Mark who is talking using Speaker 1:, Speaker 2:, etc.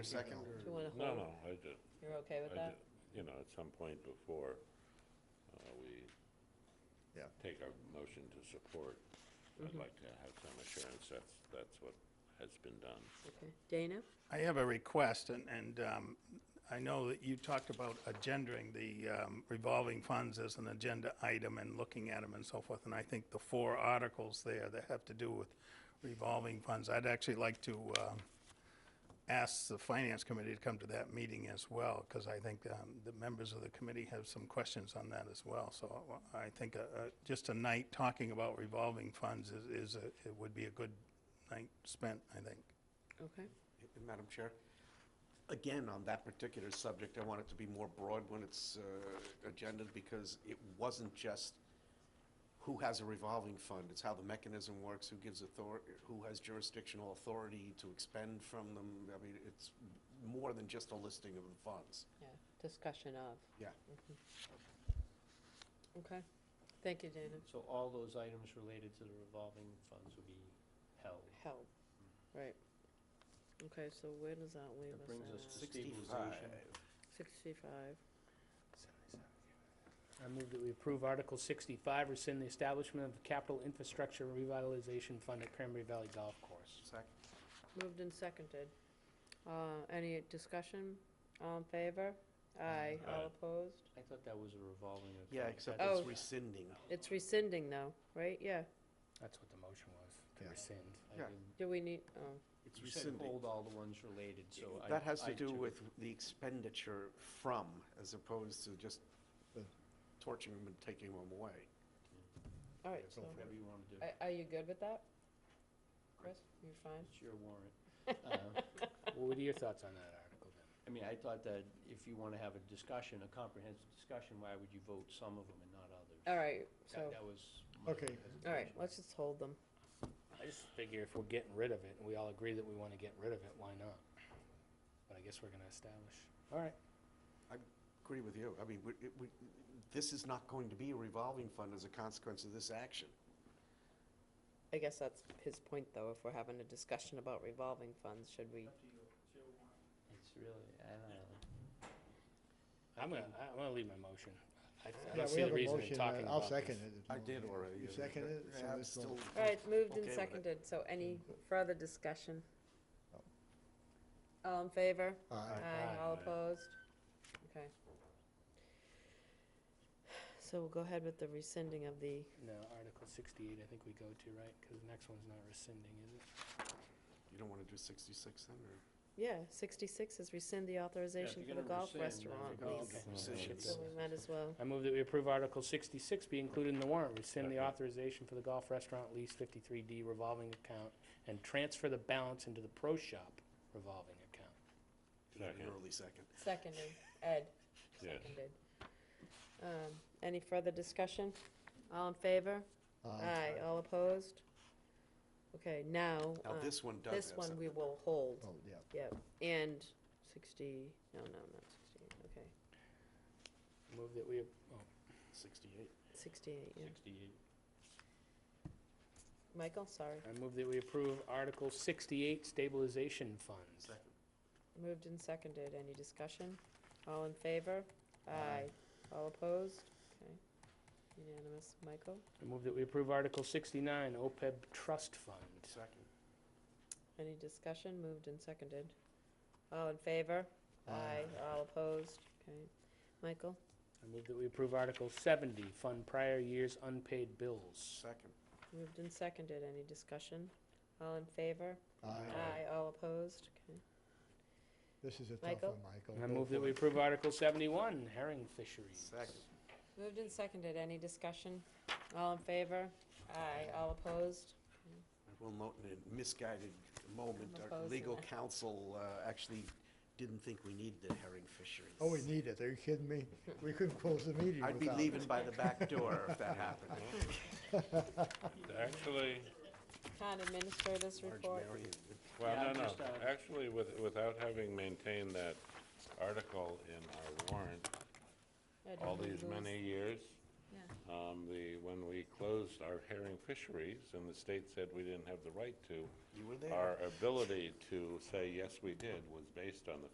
Speaker 1: a second?
Speaker 2: Do you want to
Speaker 3: No,
Speaker 2: hold?
Speaker 3: no, I did,
Speaker 2: You're okay
Speaker 3: I
Speaker 2: with that?
Speaker 3: did, you know, at some point before, uh, we
Speaker 1: Yeah.
Speaker 3: take our motion to support,
Speaker 4: Mm-hmm.
Speaker 3: I'd like to have some assurance that's, that's what has been done.
Speaker 2: Okay. Dana?
Speaker 5: I have a request, and, and um, I know that you talked about agendering the um, revolving funds as an agenda item and looking at them and so forth, and I think the four articles there that have to do with revolving funds, I'd actually like to um, ask the Finance Committee to come to that meeting as well, because I think um, the members of the committee have some questions on that as well. So I think uh, uh, just a night talking about revolving funds is, is a- it would be a good night spent, I think.
Speaker 2: Okay.
Speaker 1: Madam Chair, again, on that particular subject, I want it to be more broad when it's uh, agendas because it wasn't just who has a revolving fund, it's how the mechanism works, who gives authority, who has jurisdictional authority to expend from them. I mean, it's more than just a listing of the funds.
Speaker 2: Yeah, discussion of. Mm-hmm.
Speaker 1: Yeah.
Speaker 2: Okay. Thank you, Dana.
Speaker 4: So all those items related to the revolving funds will be held.
Speaker 2: Help. Right. Okay, so where does that leave
Speaker 4: That
Speaker 2: us
Speaker 4: brings us
Speaker 2: at?
Speaker 4: to stabilization.
Speaker 2: Sixty-five.
Speaker 4: I move that we approve Article 65, rescind the establishment of the Capital Infrastructure Revitalization Fund at Cranberry Valley Golf Course.
Speaker 1: Second.
Speaker 2: Moved and seconded. Uh, any discussion? All in favor? Aye.
Speaker 3: Aye.
Speaker 2: All opposed?
Speaker 4: I thought that was a revolving. of-
Speaker 1: Yeah, except
Speaker 2: Oh.
Speaker 1: it's rescinding.
Speaker 2: It's rescinding though, right? Yeah.
Speaker 4: That's what the motion was, to
Speaker 1: Yeah.
Speaker 4: rescind. I
Speaker 1: Yeah.
Speaker 4: didn't-
Speaker 2: Do we need, oh,
Speaker 1: It's
Speaker 4: You said
Speaker 1: rescinding.
Speaker 4: hold all the ones related, so I.
Speaker 1: That has to
Speaker 4: I
Speaker 1: do
Speaker 4: took-
Speaker 1: with the expenditure from, as opposed to just torching them and taking them away.
Speaker 2: all right, so,
Speaker 1: go for it.
Speaker 4: Whatever you want to do.
Speaker 2: are, are you good with that? Chris, you fine?
Speaker 4: It's your warrant. Uh, What are your thoughts on that article then? I mean, I thought that if you want to have a discussion, a comprehensive discussion, why would you vote some of them and not others?
Speaker 2: All right,
Speaker 4: That-
Speaker 2: so,
Speaker 4: That was. Okay.
Speaker 2: all right, let's just hold them.
Speaker 4: I just figure if we're getting rid of it, and we all agree that we want to get rid of it, why not? But I guess we're going to establish. All right.
Speaker 1: Agree with you. I mean, we, it- we, this is not going to be a revolving fund as a consequence of this action.
Speaker 2: I guess that's his point, though, if we're having a discussion about revolving funds, should we?
Speaker 4: It's really, I don't know.
Speaker 6: I'm gonna, I'm gonna leave my motion. I- I
Speaker 7: Yeah,
Speaker 6: don't
Speaker 7: we
Speaker 6: see
Speaker 7: have
Speaker 6: the
Speaker 7: a
Speaker 6: reason in
Speaker 7: motion, uh,
Speaker 6: talking about
Speaker 7: I'll
Speaker 6: this.
Speaker 7: second it. if
Speaker 1: I
Speaker 7: you
Speaker 1: did
Speaker 7: want.
Speaker 1: already.
Speaker 7: You seconded it? so
Speaker 1: Yeah, I'm
Speaker 7: this will-
Speaker 1: still-
Speaker 2: All right, moved
Speaker 1: Okay with
Speaker 2: and
Speaker 1: it. Mm.
Speaker 2: seconded, so any further discussion? All in favor?
Speaker 7: Aye.
Speaker 2: Aye, all opposed? Okay. So we'll go ahead with the rescinding of the,
Speaker 4: No, Article 68, I think we go to, right? Because the next one's not rescinding, is it?
Speaker 1: You don't want to do 66 then, or?
Speaker 2: yeah, sixty-six is rescind the authorization for the golf restaurant
Speaker 1: Oh,
Speaker 2: lease.
Speaker 1: okay.
Speaker 2: So we might as well,
Speaker 4: I move that we approve Article 66 be included in the warrant, rescind the
Speaker 3: Second.
Speaker 4: authorization for the golf restaurant lease 53D revolving account, and transfer the balance into the pro shop revolving account.
Speaker 3: Second.
Speaker 1: Early second.
Speaker 2: seconded, Ed,
Speaker 3: Yes.
Speaker 2: seconded. Um, any further discussion? All in favor? Aye, all opposed? Okay, now,
Speaker 1: Now,
Speaker 2: uh,
Speaker 1: this one does
Speaker 2: this
Speaker 1: have
Speaker 2: one
Speaker 1: some.
Speaker 2: we will hold,
Speaker 7: Oh, yeah.
Speaker 2: yep, and 60, no, no, not 68, okay,
Speaker 4: Move that we, ap- oh,
Speaker 1: 68.
Speaker 2: 68, yeah.
Speaker 4: 68.
Speaker 2: Michael, sorry,
Speaker 4: I move that we approve Article 68 stabilization funds.
Speaker 2: moved and seconded, any discussion? All in favor? Aye. All opposed? Okay, unanimous, Michael?
Speaker 4: I move that we approve Article 69 OPEB E trust fund.
Speaker 1: Second.
Speaker 2: Any discussion? Moved and seconded. All in favor?
Speaker 7: Aye.
Speaker 2: All opposed? Okay, Michael?
Speaker 4: I move that we approve Article 70 fund prior year's unpaid bills.
Speaker 1: Second.
Speaker 2: Moved and seconded, any discussion? All in favor?
Speaker 7: Aye.
Speaker 2: Aye, all opposed? Okay.
Speaker 7: This is a tough
Speaker 2: Michael?
Speaker 7: one, Michael.
Speaker 4: And I
Speaker 7: Go
Speaker 4: move that
Speaker 7: for
Speaker 4: we
Speaker 7: it.
Speaker 4: approve Article 71 herring fisheries.
Speaker 1: Second.
Speaker 2: Moved and seconded, any discussion? All in favor? Aye, all opposed?
Speaker 1: I will note in a misguided moment,
Speaker 2: I'm
Speaker 1: our
Speaker 2: opposed to
Speaker 1: legal
Speaker 2: that.
Speaker 1: counsel uh, actually didn't think we needed the herring fisheries.
Speaker 7: Oh, we need it. Are you kidding me? We couldn't close the meeting without
Speaker 1: I'd be
Speaker 7: it.
Speaker 1: leaving by the back door if that happened.
Speaker 3: Actually,
Speaker 2: Town administrators
Speaker 1: Large
Speaker 2: report.
Speaker 1: Marion.
Speaker 3: well,
Speaker 4: Yeah,
Speaker 3: no, no,
Speaker 4: just, uh,
Speaker 3: actually, with, without having maintained that article in our warrant
Speaker 2: Uh, did
Speaker 3: all
Speaker 2: we
Speaker 3: these
Speaker 2: lose-
Speaker 3: many years,
Speaker 2: Yeah.
Speaker 3: Um, the, when we closed our herring fisheries, and the state said we didn't have the right to,
Speaker 1: You were there.
Speaker 3: our ability to say, yes, we did, was based on the